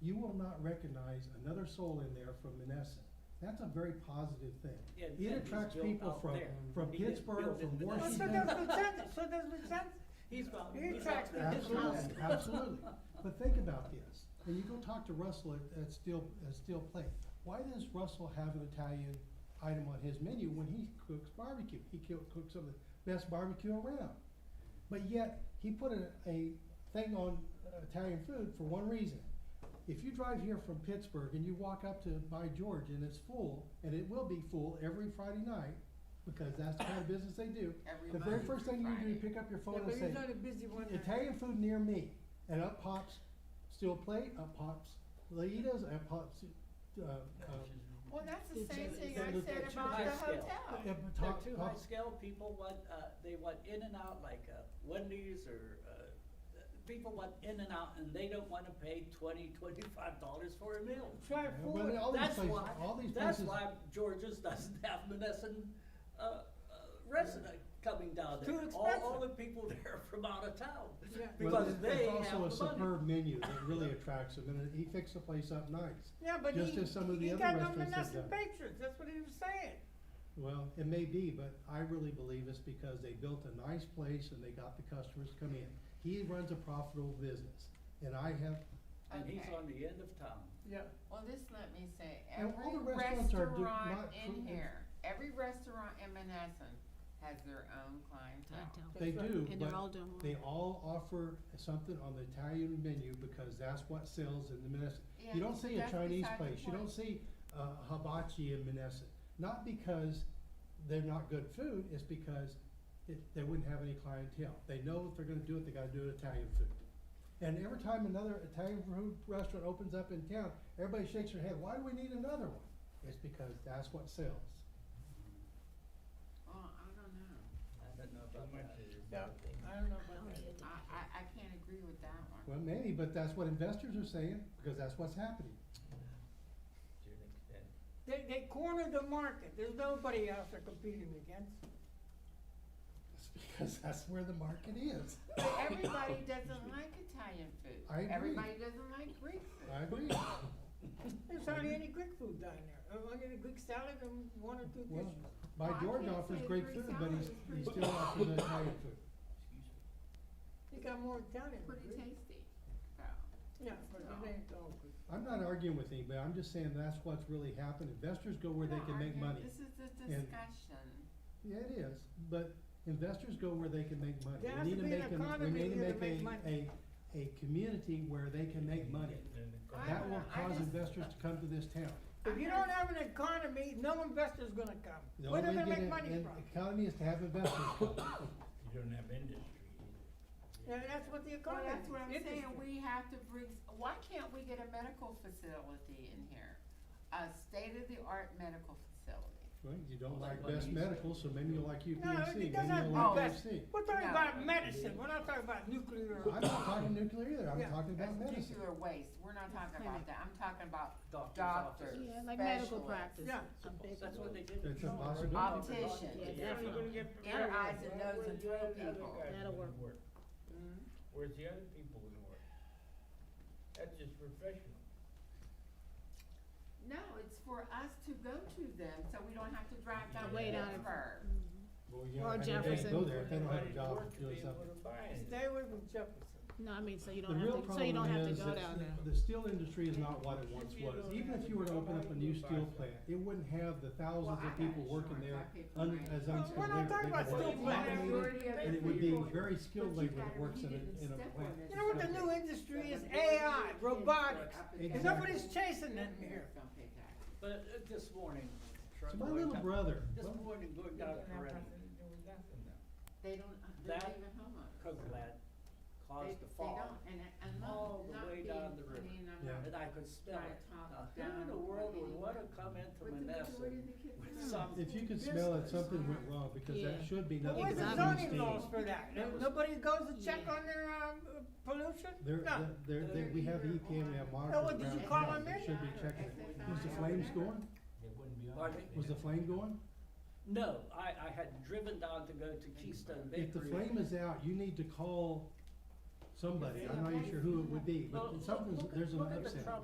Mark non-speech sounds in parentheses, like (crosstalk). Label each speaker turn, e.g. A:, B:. A: you will not recognize another soul in there from Menneson. That's a very positive thing.
B: Yeah,
A: It
B: and
A: attracts
B: he's built
A: people
B: out
A: from,
B: there.
A: from
B: He didn't
A: Pittsburgh,
B: build
A: from
B: it in the-
C: Well, so
A: Washington.
C: (laughs) does Lieutenant, so does Lieutenant,
B: He's about,
C: He
B: he's
C: attracts
B: out there.
C: people from
A: Absolutely, absolutely. But think about this, when you go talk to Russell at, at Steel, at Steel Plate, why does Russell have an Italian item on his menu when he cooks barbecue? He co- cooks some of the best barbecue around. But yet, he put a, a thing on uh, Italian food for one reason. If you drive here from Pittsburgh and you walk up to By George and it's full, and it will be full every Friday night, because that's the kind of business they do,
D: Every
A: the very
D: Monday
A: first thing
D: through
A: you do is
D: Friday.
A: pick up your
C: yeah,
A: phone and
C: but
A: say,
C: he's not a busy one.
A: Italian food near me, and up pops steel plate, up pops Laitas, up pops, uh, uh,
D: Well, that's the
C: It's
D: same
C: just-
D: thing
A: it's
D: I
A: just-
D: said
B: it's too
D: about
B: high
D: the
B: scale.
D: hotel.
A: yeah, but
B: They're
A: top-
B: too high
A: pops-
B: scale, people want, uh, they want in and out like, uh, Wendy's or, uh, people want in and out and they don't wanna pay twenty, twenty-five dollars for a meal.
C: Try
A: Yeah,
C: food.
A: well, all these
B: That's
A: places,
B: why,
A: all these
B: that's
A: places,
B: why Georgia's (laughs) doesn't have Menneson, uh, uh, resident coming down
C: It's
B: there.
C: too
B: All, all
C: expensive.
B: the people (laughs) there are from out of town.
C: Yeah.
A: well,
B: because
A: it-
B: they
A: it's also a
B: have the money.
A: superb menu that really attracts them, and he fixed the place up nice.
C: Yeah, but
A: Just as some of the
C: he, he
A: other
C: got no
A: restaurants have
C: Menneson
A: done.
C: patrons, that's what he was saying.
A: Well, it may be, but I really believe it's because they built a nice place and they got the customers to come in. He runs a profitable business, and I have,
B: And he's
D: Okay.
B: on the end of town.
C: Yeah.
D: Well, this let me say,
A: And all
D: every
A: the restaurants are do-
D: restaurant
A: not cru-
D: in here, every restaurant in Menneson has their own clientele.
A: they
C: That's right.
A: do,
E: And
A: but
E: they're all doing well.
A: They all offer something on the Italian menu because that's what sells in the Menneson.
D: Yeah,
A: You don't see a
D: that's
A: Chinese
D: beside the
A: place, you don't
D: point.
A: see uh, hibachi in Menneson. Not because they're not good food, it's because it, they wouldn't have any clientele. They know if they're gonna do it, they gotta do it Italian food. And every time another Italian food restaurant opens up in town, everybody shakes their head, why do we need another one? It's because that's what sells.
D: Well, I don't know.
B: I don't know about that.
C: Yeah, I don't know about that.
D: I, I, I can't agree with that one.
A: Well, maybe, but that's what investors are saying, because that's what's happening.
C: They, they cornered the market, there's nobody else they're competing against.
A: It's because that's where the market is.
D: But
A: (coughs)
D: everybody doesn't like Italian food.
A: I agree.
D: Everybody doesn't like Greek food.
A: I
C: (coughs)
A: agree.
C: There's hardly
A: Mm-hmm.
C: any Greek food down there, Uh, only the Greek salad and one or two
A: Well,
C: dishes.
A: my
D: Well, I
A: George
D: can't
A: offers
D: say
A: great
D: Greek
A: food, but
D: salad
A: he's,
D: is
A: he
D: pretty-
C: (laughs)
A: still offers Italian food.
C: They got more Italian than
D: Pretty
C: Greek.
D: tasty, so.
C: Yeah, but
D: No.
C: it ain't all Greek.
A: I'm not arguing with anybody, I'm just saying that's what's really happened, investors go where they
D: No,
A: can
D: I
A: make
D: mean,
A: money.
D: This is a
A: And-
D: discussion.
A: Yeah, it is, but investors go where they can make money.
C: There has
A: We
C: to
A: need to
C: be an
A: make, an- we
C: economy
A: need to
C: here to
A: make
C: make
A: a, a,
C: money.
A: a community where they can make money.
D: I
A: That
D: don't
A: will
D: know, I
A: cause
D: just-
A: investors to come to this town.
C: If you don't have an economy, no investor's gonna come.
A: The
C: Where they
A: only way
C: gonna
A: to
C: make
A: get
C: money
A: an-
C: from?
A: Economy is to have investors come. (coughs)
F: You don't have industry
C: Yeah, that's what the
D: Well,
C: economy.
D: that's what I'm
C: is,
D: saying,
C: industry.
D: we have to bring, s- why can't we get a medical facility in here? A state-of-the-art medical facility.
A: Well, you don't
B: Like
A: like
B: what
A: best
B: you said.
A: medical, so maybe you'll like
C: No,
A: UPMC,
C: it
A: maybe
C: doesn't have
A: you'll like
C: best.
A: UC.
C: We're talking
D: No.
C: about medicine, we're not talking about nuclear.
A: I'm not talking nuclear either, I'm
C: Yeah.
A: talking about
D: That's
A: medicine.
D: nuclear waste, we're not talking about
E: clinic.
D: that, I'm talking about
B: Doctor's office.
D: doctors,
E: Yeah, like medical
D: specialists.
E: practice.
C: Yeah.
E: A big
B: That's
E: one.
B: what they did. in
A: It's a
B: Georgia.
A: possibility.
D: Optician.
E: Yeah,
C: You're
E: definitely.
C: gonna get
D: Their
C: very-
D: eyes and noses and drill people.
E: That'll work.
D: Mhm.
F: Where's the other people gonna work? That's just professional.
D: No, it's for us to go to them, so we don't have to drive down to
E: Wait on it.
D: Pittsburgh.
A: Well, you
E: Or
A: know, I mean, they
E: Jefferson.
A: go there if they don't have a
F: Nobody's
A: job
F: working,
A: doing
F: people
A: something.
F: are buying it.
C: Stay away from Jefferson.
E: No, I mean, so you
A: The
E: don't
A: real
E: have to, so you don't
A: problem
E: have to
A: is
E: go
A: that
E: down there.
A: the steel industry is not what it once was. Even if you were to open up a new steel plant, it wouldn't have the thousands
D: Well, I
A: of people
D: got
A: working there
D: insurance. I pay for
A: un-
D: mine.
A: as
C: Well,
A: unskilled
C: we're
A: labor.
C: not talking about
A: They would
C: steel
A: work
C: plants.
A: automated, And it would be very skilled
D: But you
A: labor that
D: gotta
A: works in
D: read it
A: a, in a
D: step
A: plant.
D: on it.
C: You know what the new industry is? AI, robotics. And nobody's chasing them here.
D: Don't pay taxes.
B: But uh, this morning.
A: So
B: truck
A: my
B: going
A: little
B: down-
A: brother,
B: This morning, going down to Perennial,
D: They don't, uh, they're
B: That
D: not even homeowners.
B: Coke lad
D: They,
B: caused the
D: they
B: fog.
D: don't, and, I- and
B: all
D: not,
B: the
D: not
B: way
D: being,
B: down the river.
D: I mean, I'm
A: Yeah.
D: not.
B: And I could smell
D: Try to
B: it.
D: talk
B: Now, Who in the
D: down
B: world
D: or
B: would wanna
D: anything.
B: come into
D: But the majority
B: Menneson
D: of the kids
B: with
D: are
B: some?
A: if you could smell it, something went wrong because that
E: Yeah.
A: should be
C: But
A: nothing.
C: where's
A: but
C: the
E: Exactly.
A: green
C: zoning
A: steel.
C: laws for that? No- Nobody goes to check
E: Yeah.
C: on their, um, uh, pollution?
A: There,
C: No.
A: there, there- there- we have E
D: They're
A: EPA, we have monitors
D: either
C: what,
A: around
C: did
A: the
C: you call
A: house
C: them
A: that
C: in?
A: should be checking it. Was the flames going?
F: They wouldn't be on.
B: Pardon
F: it.
B: me?
A: Was the flame going?
B: No, I, I had driven down to go to Keystone Bakery.
A: If the flame is out, you need to call somebody. I'm not even sure who it would be,
B: Well,
A: but something's,
B: look at-
A: there's an
B: look at the
A: upset.
B: trouble